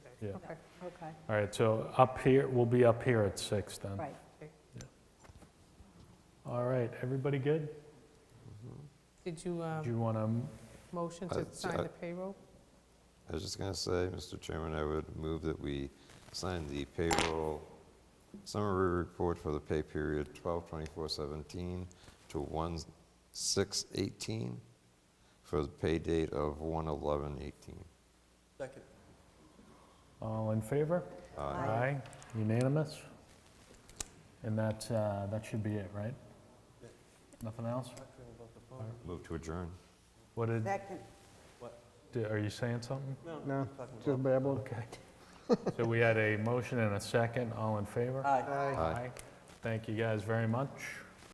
Yeah. Okay, okay, All right, so up here, we'll be up here at six then. right. All right, everybody good? Did you um, Do you want to motion Uh, to s- sign uh, the payroll? I was just going to say, Mr. Chairman, I would move that we sign the payroll summary report for the pay period 12/24/17 to 1/6/18 for the pay date of 1/11/18. Second. All in favor? Uh, Aye, unanimous? And that, uh, that should be it, right? Nothing else? Move to adjourn. What did, Second. di- are you saying something? No, talking just babble. Okay. So we had a motion and a second, all in favor? Aye. Aye. Thank you guys very much.